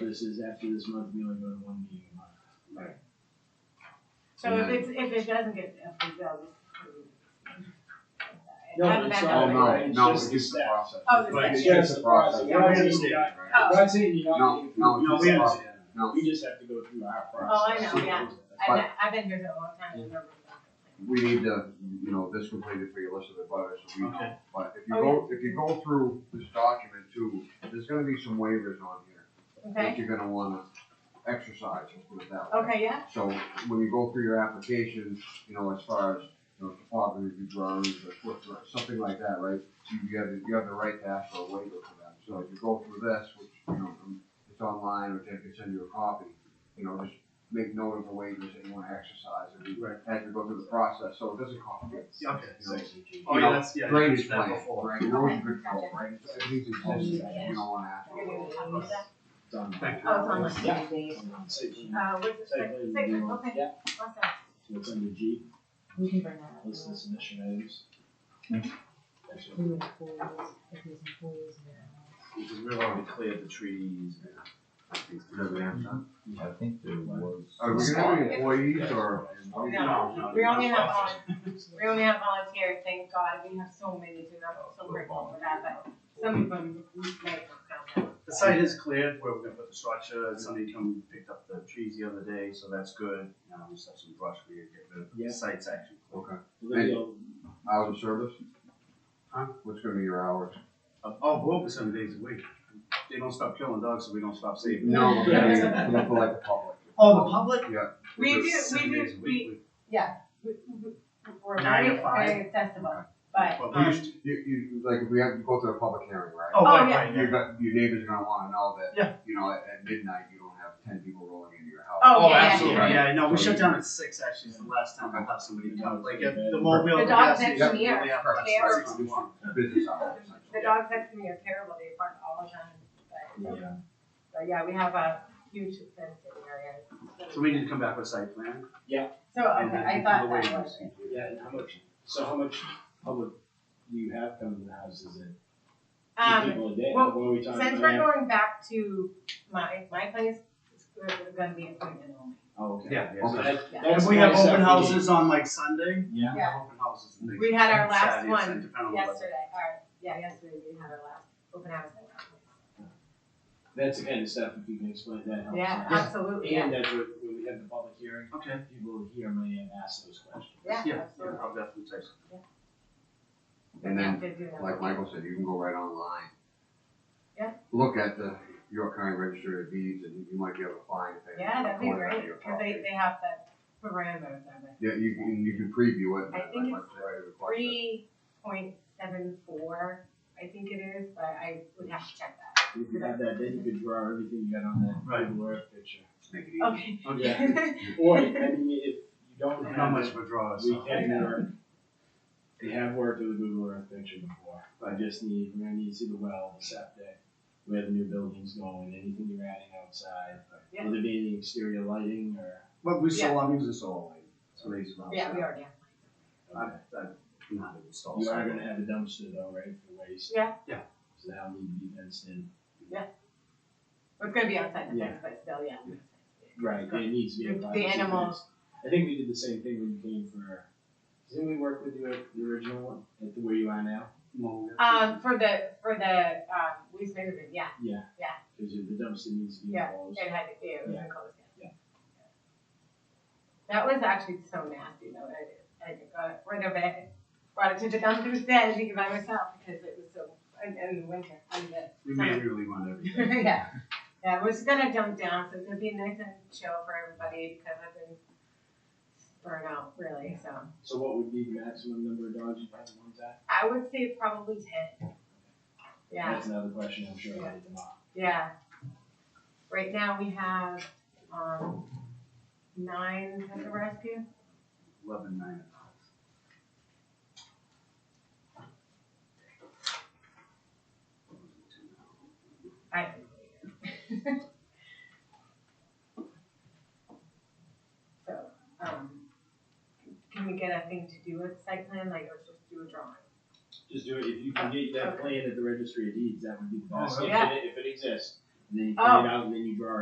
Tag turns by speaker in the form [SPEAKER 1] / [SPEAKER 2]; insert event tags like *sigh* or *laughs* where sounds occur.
[SPEAKER 1] This is after this month, we only go to one meeting a month.
[SPEAKER 2] So if it's, if it doesn't get approved, they'll just. approve it.
[SPEAKER 1] No,
[SPEAKER 2] That-
[SPEAKER 1] it's
[SPEAKER 2] that
[SPEAKER 1] all-
[SPEAKER 3] Oh,
[SPEAKER 2] doesn't-
[SPEAKER 1] no. it's
[SPEAKER 4] No, no,
[SPEAKER 1] just
[SPEAKER 4] it's just the
[SPEAKER 1] that.
[SPEAKER 4] process.
[SPEAKER 2] Oh, the
[SPEAKER 4] Like, it's
[SPEAKER 2] second.
[SPEAKER 4] just the process.
[SPEAKER 1] Yeah, I understand.
[SPEAKER 4] You got it, right?
[SPEAKER 2] Oh.
[SPEAKER 1] I'm not saying you're not.
[SPEAKER 4] No,
[SPEAKER 1] getting-
[SPEAKER 4] no,
[SPEAKER 1] No,
[SPEAKER 4] it's
[SPEAKER 1] we
[SPEAKER 4] just-
[SPEAKER 1] understand.
[SPEAKER 4] No,
[SPEAKER 1] We just have to go through our
[SPEAKER 2] Oh, I
[SPEAKER 1] process.
[SPEAKER 2] know, yeah. I've been, I've been here for a long time. and never been back.
[SPEAKER 3] we need to, you know, this completed for your list of abutters, so we
[SPEAKER 4] Okay.
[SPEAKER 3] But if you
[SPEAKER 2] Oh,
[SPEAKER 3] go, if you go through this document too, there's gonna be some waivers on here
[SPEAKER 2] Okay,
[SPEAKER 3] that you're gonna wanna exercise, let's put it that way.
[SPEAKER 2] okay, yeah,
[SPEAKER 3] So when you go through your application, you know, as far as, you know, topography drawings or foot, drawings, something like that, right? You, you have, you have the right to ask for a waiver for that, so if you go through this, which, you know, um, it's online, or Jen can send you a copy, you know, just make note of the waivers that you wanna exercise, and we,
[SPEAKER 4] Right.
[SPEAKER 3] as we go through the process, so it doesn't cost you.
[SPEAKER 4] Yeah, Okay,
[SPEAKER 3] you know,
[SPEAKER 4] oh, yeah, that's, yeah. I
[SPEAKER 3] drainage
[SPEAKER 4] did that
[SPEAKER 3] plan,
[SPEAKER 4] before.
[SPEAKER 3] right, erosion control, right, So everything's existing, you don't wanna ask
[SPEAKER 2] you're gonna
[SPEAKER 3] for
[SPEAKER 2] be talking
[SPEAKER 5] Oh,
[SPEAKER 2] about that.
[SPEAKER 1] It's on.
[SPEAKER 4] Thank you.
[SPEAKER 2] Oh, it's on like
[SPEAKER 1] Yeah.
[SPEAKER 2] six days.
[SPEAKER 1] Section-
[SPEAKER 2] Uh, what's the
[SPEAKER 1] section
[SPEAKER 2] six,
[SPEAKER 1] you
[SPEAKER 2] six,
[SPEAKER 1] do.
[SPEAKER 2] okay,
[SPEAKER 1] Yeah,
[SPEAKER 2] awesome.
[SPEAKER 1] so it's under G,
[SPEAKER 5] We can bring that up.
[SPEAKER 1] list of submission items. That's what-
[SPEAKER 5] Who employees, if there's employees there.
[SPEAKER 4] Because we've already cleared the trees and.
[SPEAKER 6] Mm-hmm. I think there was.
[SPEAKER 3] Are we gonna have any employees or?
[SPEAKER 2] No, we only
[SPEAKER 4] *laughs*
[SPEAKER 2] have volunteers, we only have volunteers, thank God, we have so many, so I'm so grateful for that, but some of them, we might not count
[SPEAKER 4] The site is cleared where we're gonna put the structure, somebody come picked up the trees the other day, so that's good. Now we just have some brush we get rid of,
[SPEAKER 1] Yeah.
[SPEAKER 4] the site's actually clear.
[SPEAKER 3] Okay,
[SPEAKER 1] We're gonna
[SPEAKER 3] Hey.
[SPEAKER 1] go-
[SPEAKER 3] hours of service?
[SPEAKER 4] Huh?
[SPEAKER 3] What's gonna be your hours?
[SPEAKER 4] Uh, Oh, we're open seven days a week. They don't stop killing dogs, so we don't stop saving.
[SPEAKER 2] *laughs* No.
[SPEAKER 3] No,
[SPEAKER 4] *laughs*
[SPEAKER 3] I'm gonna- I'm gonna for like the public.
[SPEAKER 4] Oh, the public?
[SPEAKER 3] Yeah.
[SPEAKER 2] We do, we
[SPEAKER 4] Seven days a
[SPEAKER 2] do,
[SPEAKER 4] week,
[SPEAKER 2] we, yeah, we, we, we're
[SPEAKER 4] Nine to
[SPEAKER 2] very,
[SPEAKER 4] five.
[SPEAKER 2] very accessible, but,
[SPEAKER 4] Well, we
[SPEAKER 2] um,
[SPEAKER 4] used to-
[SPEAKER 3] You, you, like, if we have to go to a public hearing, right?
[SPEAKER 4] Oh,
[SPEAKER 2] Oh,
[SPEAKER 4] right,
[SPEAKER 2] yeah.
[SPEAKER 4] right,
[SPEAKER 3] Your,
[SPEAKER 4] yeah.
[SPEAKER 3] gu- your neighbors are gonna wanna know
[SPEAKER 4] Yeah.
[SPEAKER 3] that, you know, at, at midnight, you don't have ten people rolling into your house.
[SPEAKER 2] Oh, yeah,
[SPEAKER 4] Oh,
[SPEAKER 2] yeah,
[SPEAKER 4] absolutely,
[SPEAKER 3] yeah.
[SPEAKER 4] yeah, no, we shut down at six, actually, is the last time I have somebody come, like, at the mobile.
[SPEAKER 2] The
[SPEAKER 4] gas
[SPEAKER 2] dogs next
[SPEAKER 4] station,
[SPEAKER 2] to me are
[SPEAKER 4] we only have about
[SPEAKER 2] fair.
[SPEAKER 4] six people.
[SPEAKER 3] Business hours. essentially.
[SPEAKER 2] the dogs next to me are terrible, they bark all the time, but, um,
[SPEAKER 1] Yeah.
[SPEAKER 2] but yeah, we have a huge fenced area.
[SPEAKER 4] So we need to come back with a site plan.
[SPEAKER 2] So,
[SPEAKER 4] and
[SPEAKER 2] okay,
[SPEAKER 4] then
[SPEAKER 2] I
[SPEAKER 4] do
[SPEAKER 2] thought
[SPEAKER 4] the
[SPEAKER 2] that
[SPEAKER 4] waivers.
[SPEAKER 2] was.
[SPEAKER 1] Yeah, and how much, so how much public do you have come to the houses in?
[SPEAKER 2] Um,
[SPEAKER 1] People a day,
[SPEAKER 2] well,
[SPEAKER 1] what are we talking
[SPEAKER 2] Since
[SPEAKER 1] about?
[SPEAKER 2] we're going back to my, my place, it's we're gonna be appointment only.
[SPEAKER 1] Oh, okay.
[SPEAKER 4] Yeah, yeah.
[SPEAKER 1] So
[SPEAKER 3] Okay.
[SPEAKER 1] that-
[SPEAKER 2] Yeah.
[SPEAKER 1] that's
[SPEAKER 4] If we have
[SPEAKER 1] nice
[SPEAKER 4] open
[SPEAKER 1] that we-
[SPEAKER 4] houses on like Sunday,
[SPEAKER 1] Yeah.
[SPEAKER 4] we have open houses. and things
[SPEAKER 2] We had our
[SPEAKER 4] on
[SPEAKER 2] last
[SPEAKER 4] Saturday, Sunday,
[SPEAKER 2] one
[SPEAKER 4] depending on the weather.
[SPEAKER 2] yesterday, or, yeah, yesterday we had our last open house. at our place.
[SPEAKER 1] That's the kind of stuff, if you can explain that, helps.
[SPEAKER 2] Yeah,
[SPEAKER 1] us.
[SPEAKER 2] absolutely, yeah,
[SPEAKER 1] And that's what, when we have the public hearing,
[SPEAKER 4] Okay,
[SPEAKER 1] people here may ask those questions.
[SPEAKER 2] yeah,
[SPEAKER 4] yeah, yeah,
[SPEAKER 2] absolutely.
[SPEAKER 4] I'll definitely text.
[SPEAKER 2] We
[SPEAKER 3] And then,
[SPEAKER 2] have to do that.
[SPEAKER 3] like Michael said, you can go right online.
[SPEAKER 2] Yeah.
[SPEAKER 3] Look at the York County Register of Deeds and you might be able to find things.
[SPEAKER 2] Yeah, that'd be
[SPEAKER 3] going on
[SPEAKER 2] great,
[SPEAKER 3] your
[SPEAKER 2] cause they,
[SPEAKER 3] property.
[SPEAKER 2] they have the parameters on it.
[SPEAKER 3] Yeah, you can, you can preview it.
[SPEAKER 2] I
[SPEAKER 3] like
[SPEAKER 2] think
[SPEAKER 3] Mike
[SPEAKER 2] it's
[SPEAKER 3] said, right, request it.
[SPEAKER 2] Three point seven four, I think it is, but I would have to check that.
[SPEAKER 1] If you have that, then you could draw everything you got on that
[SPEAKER 4] Right.
[SPEAKER 1] Google Earth picture.
[SPEAKER 4] Make it easy.
[SPEAKER 2] Okay.
[SPEAKER 1] Yeah.
[SPEAKER 2] *laughs*
[SPEAKER 1] Or, I mean, if you don't
[SPEAKER 4] And
[SPEAKER 1] have.
[SPEAKER 4] How much withdrawals?
[SPEAKER 1] We can work, we have worked with a Google Earth picture before, I just need, we're gonna need to see the well, the septic, where the new building's going, anything you're adding outside.
[SPEAKER 2] Yeah.
[SPEAKER 1] Will there be any exterior lighting or?
[SPEAKER 4] But we still, I'm using solar. So they use.
[SPEAKER 2] Yeah, we already have.
[SPEAKER 4] I'm, I'm not installed.
[SPEAKER 1] You are gonna have a dumpster though, right, for waste?
[SPEAKER 2] Yeah.
[SPEAKER 4] Yeah.
[SPEAKER 1] So that'll need to be fenced in.
[SPEAKER 2] It's gonna be outside the
[SPEAKER 1] Yeah.
[SPEAKER 2] fence, but still, yeah.
[SPEAKER 1] Right, it needs to be. a
[SPEAKER 2] The- the
[SPEAKER 1] privacy fence.
[SPEAKER 2] animals.
[SPEAKER 1] I think we did the same thing when you came for, didn't we work with you at the original one, at the where you are now?
[SPEAKER 4] Mobile.
[SPEAKER 2] Um, for the, for the, um, waste management, yeah,
[SPEAKER 1] Yeah.
[SPEAKER 2] Yeah.
[SPEAKER 1] Cause you- the dumpster needs to be
[SPEAKER 2] Yeah,
[SPEAKER 1] enclosed.
[SPEAKER 2] it had, it was
[SPEAKER 1] Yeah.
[SPEAKER 2] enclosed, yeah.
[SPEAKER 1] Yeah.
[SPEAKER 2] That was actually so nasty though, I, uh, I got it rid of it, brought it to the *laughs* dumpster instead, I think by myself, because it was so, and, and the winter, and the,
[SPEAKER 4] We manually want
[SPEAKER 2] *laughs*
[SPEAKER 4] everything.
[SPEAKER 2] yeah. Yeah, we're just gonna dump down, so it's gonna be nice and chill for everybody, because I've been burnt out, really, so.
[SPEAKER 1] So what would be the maximum number of dogs you have at one time?
[SPEAKER 2] I would say probably ten. Yeah.
[SPEAKER 1] That's another question I'm sure I'll get tomorrow.
[SPEAKER 2] Yeah. Right now, we have, um, nine at the rescue.
[SPEAKER 4] Eleven nine.
[SPEAKER 2] I. *laughs* So, um, can we get a thing to do with site plan, like, or just do a drawing?
[SPEAKER 1] Just do it, if you can get that plan at the registry of deeds, that would be the best, if
[SPEAKER 2] Oh, Yeah.
[SPEAKER 1] it, if it exists. and then you
[SPEAKER 2] Oh.
[SPEAKER 1] put it out, and then you draw